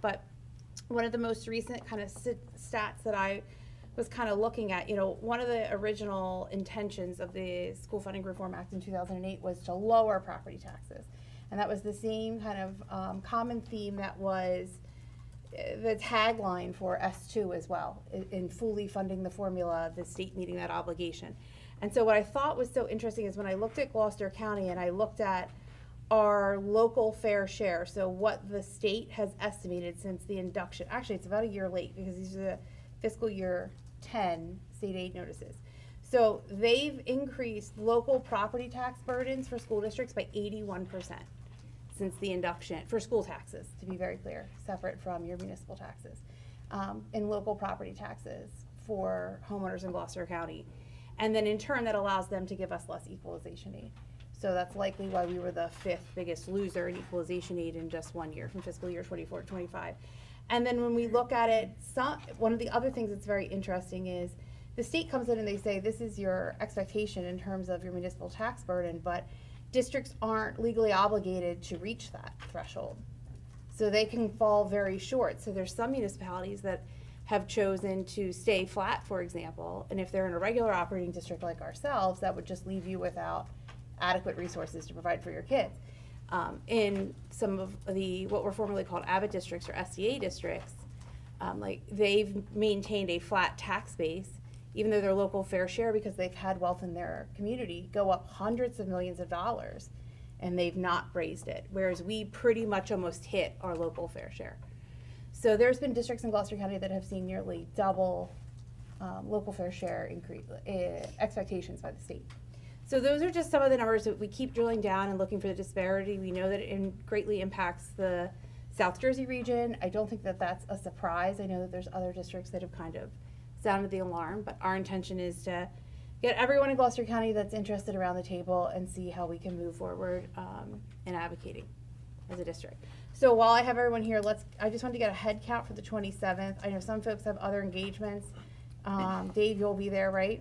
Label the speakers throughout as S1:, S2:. S1: But one of the most recent kind of stats that I was kind of looking at, you know, one of the original intentions of the School Funding Reform Act in 2008 was to lower property taxes. And that was the same kind of um, common theme that was uh, the tagline for S2 as well, i- in fully funding the formula, the state meeting that obligation. And so what I thought was so interesting is when I looked at Gloucester County and I looked at our local fair share, so what the state has estimated since the induction, actually, it's about a year late because these are the fiscal year 10 state aid notices. So they've increased local property tax burdens for school districts by 81% since the induction, for school taxes, to be very clear, separate from your municipal taxes, um, and local property taxes for homeowners in Gloucester County. And then in turn, that allows them to give us less equalization aid. So that's likely why we were the fifth biggest loser in equalization aid in just one year, from fiscal year 24 to 25. And then when we look at it, some, one of the other things that's very interesting is the state comes in and they say, this is your expectation in terms of your municipal tax burden, but districts aren't legally obligated to reach that threshold. So they can fall very short. So there's some municipalities that have chosen to stay flat, for example, and if they're in a regular operating district like ourselves, that would just leave you without adequate resources to provide for your kids. Um, in some of the, what were formerly called Abbott districts or SDA districts, um, like they've maintained a flat tax base, even though their local fair share, because they've had wealth in their community, go up hundreds of millions of dollars, and they've not raised it, whereas we pretty much almost hit our local fair share. So there's been districts in Gloucester County that have seen nearly double um, local fair share increase, uh, expectations by the state. So those are just some of the numbers that we keep drilling down and looking for the disparity. We know that it in- greatly impacts the South Jersey region. I don't think that that's a surprise. I know that there's other districts that have kind of sounded the alarm, but our intention is to get everyone in Gloucester County that's interested around the table and see how we can move forward um, in advocating as a district. So while I have everyone here, let's, I just wanted to get a head count for the 27th. I know some folks have other engagements. Um, Dave, you'll be there, right?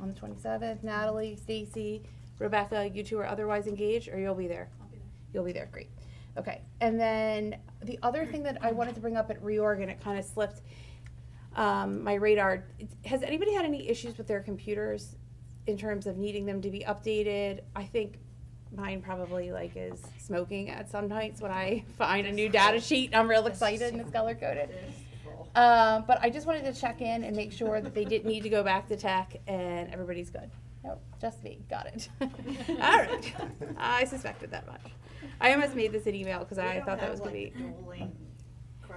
S1: on the 27th. Natalie, Stacy, Rebecca, you two are otherwise engaged, or you'll be there? I'll be there. You'll be there, great. Okay, and then the other thing that I wanted to bring up at reorg, and it kind of slipped um, my radar, it's- has anybody had any issues with their computers in terms of needing them to be updated? I think mine probably like is smoking at some nights when I find a new data sheet, I'm real excited and it's color coded. Um, but I just wanted to check in and make sure that they didn't need to go back to tech and everybody's good. Nope, just me, got it. All right, I suspected that much. I almost made this an email because I thought that was gonna be,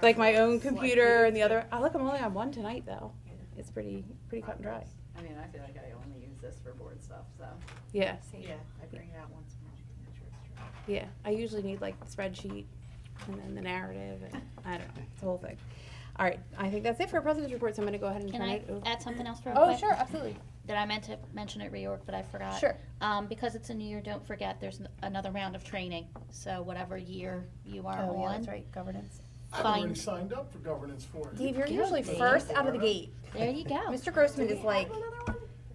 S1: like my own computer and the other, oh, look, I'm only on one tonight though. It's pretty, pretty cut and dry.
S2: I mean, I feel like I only use this for board stuff, so,
S1: Yeah,
S2: yeah, I bring it out once a month. and make sure it's true.
S1: yeah, I usually need like the spreadsheet and then the narrative and I don't know, it's the whole thing. All right, I think that's it for our president's report, so I'm gonna go ahead and
S3: Can
S1: turn
S3: I
S1: it over.
S3: add something else real
S1: Oh,
S3: quick?
S1: sure, absolutely,
S3: That I meant to mention at reorg, but I forgot.
S1: sure.
S3: Um, because it's a new year, don't forget, there's n- another round of training. So whatever year you are
S1: Oh, yeah,
S3: on.
S1: that's right, governance.
S4: I've already
S3: Find-
S4: signed up for governance for it. Oh.
S1: Dave, you're usually
S3: Guilty.
S1: first out of the gate.
S3: There you go.
S1: Mr. Grossman is like,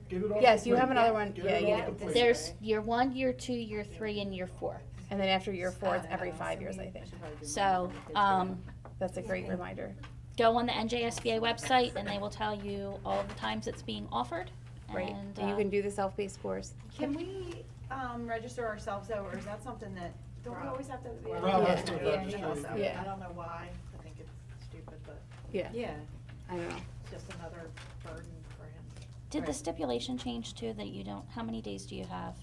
S4: Get it off
S1: Yes,
S4: the
S1: you
S4: plate.
S1: have another one.
S4: Get
S1: Yeah,
S4: it
S1: yeah.
S4: off the plate.
S3: There's year one, year two, year three, and year four.
S1: and then after year four, it's
S2: Uh,
S1: every
S2: so
S1: five
S2: we-
S1: years, I think.
S2: should probably do mine
S3: So,
S2: when the kids are
S3: um,
S1: That's a great reminder.
S3: go on the NJSBA website and they will tell you all the times it's being offered.
S1: Right.
S3: And,
S1: And you
S3: uh,
S1: can do the self-paced course.
S2: young. Can we, um, register ourselves though, or is that something that, don't we always have to?
S5: Rob
S4: has to
S2: Yeah.
S4: register.
S2: Also,
S1: Yeah.
S2: I don't know why, I think it's stupid, but.
S1: Yeah.
S2: Yeah,
S1: I don't know.
S2: it's just another burden for him.
S3: Did the stipulation change too, that you don't, how many days do you have?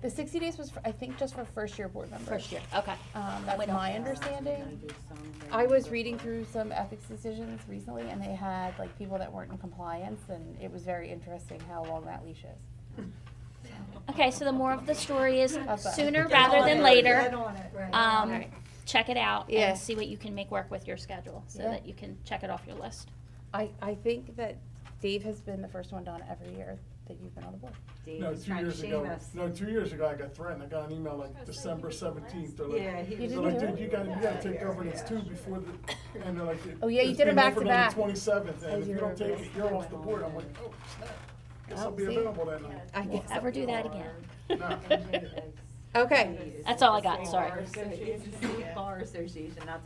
S1: The 60 days was, for, I think, just for first year board members.
S3: First year, okay.
S1: Um, that's
S3: Wait, no.
S1: my understanding. I was reading through some ethics decisions recently, and they had like people that weren't in compliance, and it was very interesting how long that leash is.
S3: Okay, so the more of the story is
S1: Up, up.
S3: sooner
S1: Get
S3: rather
S1: on
S3: than
S1: it.
S3: later. Um,
S1: Right.
S3: check it out
S1: Yeah.
S3: and see what you can make work with your schedule so
S1: Yeah.
S3: that you can check it off your list.
S1: I, I think that Dave has been the first one done every year that you've been on the board.
S4: No, two years ago, no, two years ago, I got threatened. I got an email like December seventeenth. They're
S2: Yeah,
S4: like,
S2: he
S1: You
S2: was.
S4: they're
S1: didn't
S4: like,
S1: do
S4: dude, you gotta, you gotta take governance too before the, and they're like.
S1: Oh, yeah, you
S4: it's
S1: did it
S4: being
S1: back
S4: offered
S1: to
S4: on the
S1: back.
S4: Twenty-seventh,
S1: I
S4: and if you don't
S1: do
S4: take it, you're off the
S2: remember.
S4: board. I'm like, oh, snap. Guess I'll
S1: Oh,
S4: be
S1: see?
S4: available that night.
S1: I guess.
S3: Ever do that again?
S4: No.
S1: Okay.
S3: That's all I got, sorry.
S5: Bar Association, Bar Association, not the